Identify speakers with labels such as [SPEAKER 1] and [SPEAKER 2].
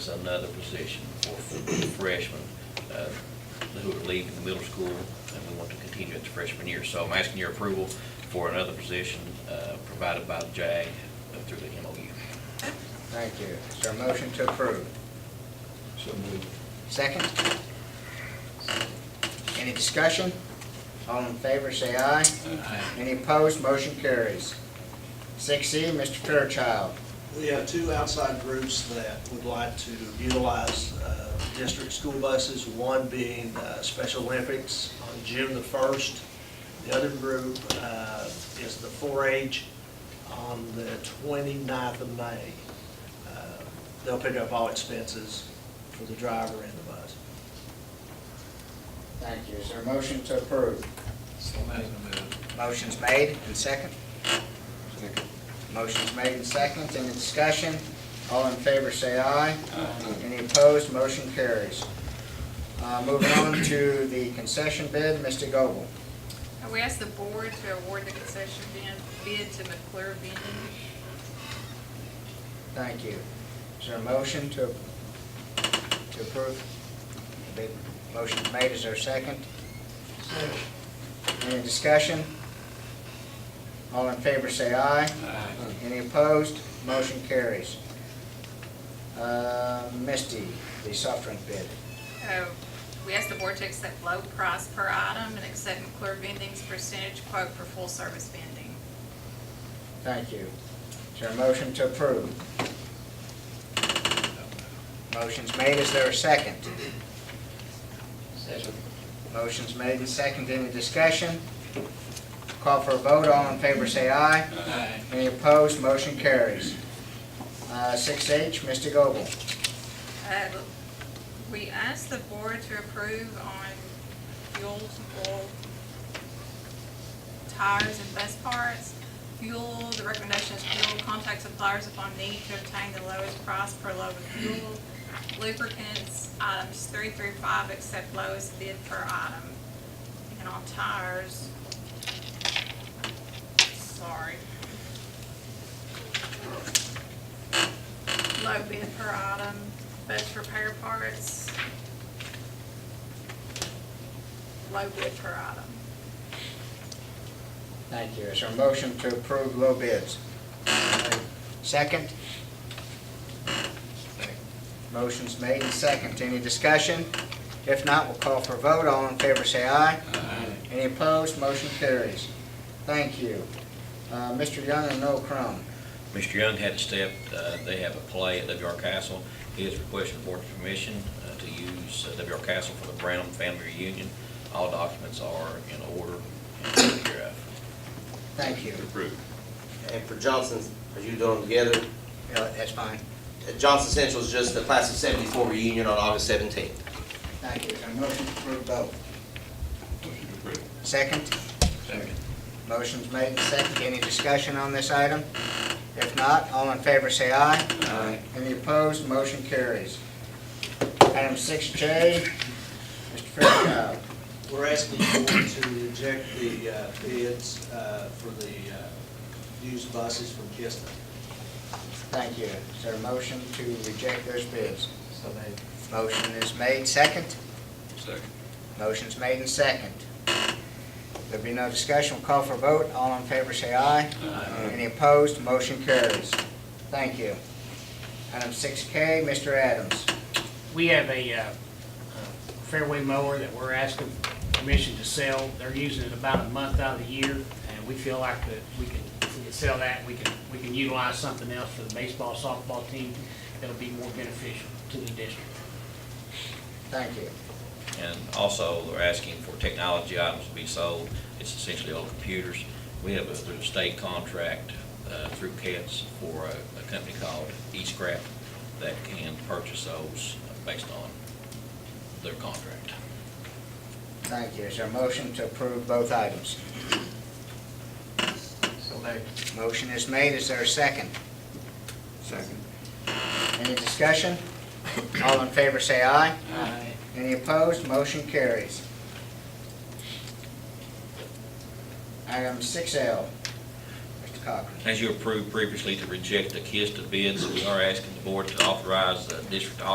[SPEAKER 1] It's another position for freshmen uh, who are leaving the middle school, and we want to continue it to freshman year. So I'm asking your approval for another position uh, provided by the JAG through the MOU.
[SPEAKER 2] Thank you. Is there a motion to approve?
[SPEAKER 3] So moved.
[SPEAKER 2] Second? Any discussion? All in favor, say aye. Any opposed, motion carries. Six E, Mr. Fairchild.
[SPEAKER 4] We have two outside groups that would like to utilize uh, district school buses, one being uh, Special Olympics on June the 1st. The other group uh, is the 4-H on the 29th of May. Uh, They'll pick up all expenses for the driver and the bus.
[SPEAKER 2] Thank you. Is there a motion to approve?
[SPEAKER 3] So moved.
[SPEAKER 2] Motion's made and second? Motion's made and second. Any discussion? All in favor, say aye. Any opposed, motion carries. Uh, Moving on to the concession bid, Mr. Goble.
[SPEAKER 5] We ask the board to award the concession bid bid to McClure Vending.
[SPEAKER 2] Thank you. Is there a motion to, to approve? The motion's made, is there a second? Any discussion? All in favor say aye. Any opposed? Motion carries. Uh, Misty, the soft drink bid.
[SPEAKER 5] Uh, We ask the board to accept low price per item and accept McClure Vending's percentage quote for full-service vending.
[SPEAKER 2] Thank you. Is there a motion to approve? Motion's made, is there a second? Motion's made and second, any discussion? Call for a vote, all in favor say aye.
[SPEAKER 3] Aye.
[SPEAKER 2] Any opposed, motion carries. Uh, Six H, Mr. Goble.
[SPEAKER 5] Uh, We ask the board to approve on fuels, oil, tires, and bus parts. Fuel, the recommendation is fuel, contact suppliers upon need to obtain the lowest price per load of fuel. Lubricants, items three through five, except lowest bid per item. And on tires, sorry. Low bid per item, bus repair parts. Low bid per item.
[SPEAKER 2] Thank you. Is there a motion to approve low bids? Second? Motion's made and second. Any discussion? If not, we'll call for a vote. All in favor say aye.
[SPEAKER 3] Aye.
[SPEAKER 2] Any opposed, motion carries. Thank you. Uh, Mr. Young and Noel Crum.
[SPEAKER 1] Mr. Young had a step, uh, they have a play at W.R. Castle. He is requesting board permission uh, to use uh, W.R. Castle for the Brown Family Reunion. All documents are in order and uh, taken care of.
[SPEAKER 2] Thank you.
[SPEAKER 1] Approved.
[SPEAKER 6] And for Johnson's, are you doing them together?
[SPEAKER 2] Yeah, That's fine.
[SPEAKER 6] Uh, Johnson Central is just the class of seventy-four reunion on August seventeenth.
[SPEAKER 2] Thank you. Is there a motion to approve both? Second?
[SPEAKER 3] Second.
[SPEAKER 2] Motion's made and second. Any discussion on this item? If not, all in favor say aye.
[SPEAKER 3] Aye.
[SPEAKER 2] Any opposed, motion carries. Item six J, Mr. Fairchild.
[SPEAKER 4] We're asking you to reject the uh, bids uh, for the uh, used buses from Kista.
[SPEAKER 2] Thank you. Is there a motion to reject those bids? Motion is made, second.
[SPEAKER 3] Second.
[SPEAKER 2] Motion's made and second. There be no discussion, we'll call for a vote. All in favor say aye.
[SPEAKER 3] Aye.
[SPEAKER 2] Any opposed, motion carries. Thank you. Item six K, Mr. Adams.
[SPEAKER 7] We have a uh, uh, fairway mower that we're asking permission to sell. They're using it about a month out of the year, and we feel like that we can, if we can sell that, we can, we can utilize something else for the baseball, softball team that'll be more beneficial to the district.
[SPEAKER 2] Thank you.
[SPEAKER 1] And also, they're asking for technology items to be sold. It's essentially all computers. We have a there's a state contract uh, through CATS for a a company called eScrap that can purchase those based on their contract.
[SPEAKER 2] Thank you. Is there a motion to approve both items? Motion is made. Is there a second?
[SPEAKER 3] Second.
[SPEAKER 2] Any discussion? All in favor say aye.
[SPEAKER 3] Aye.
[SPEAKER 2] Any opposed? Motion carries. Item six L, Mr. Cochran.
[SPEAKER 1] As you approved previously to reject the KISTA bids, we are asking the board to authorize the district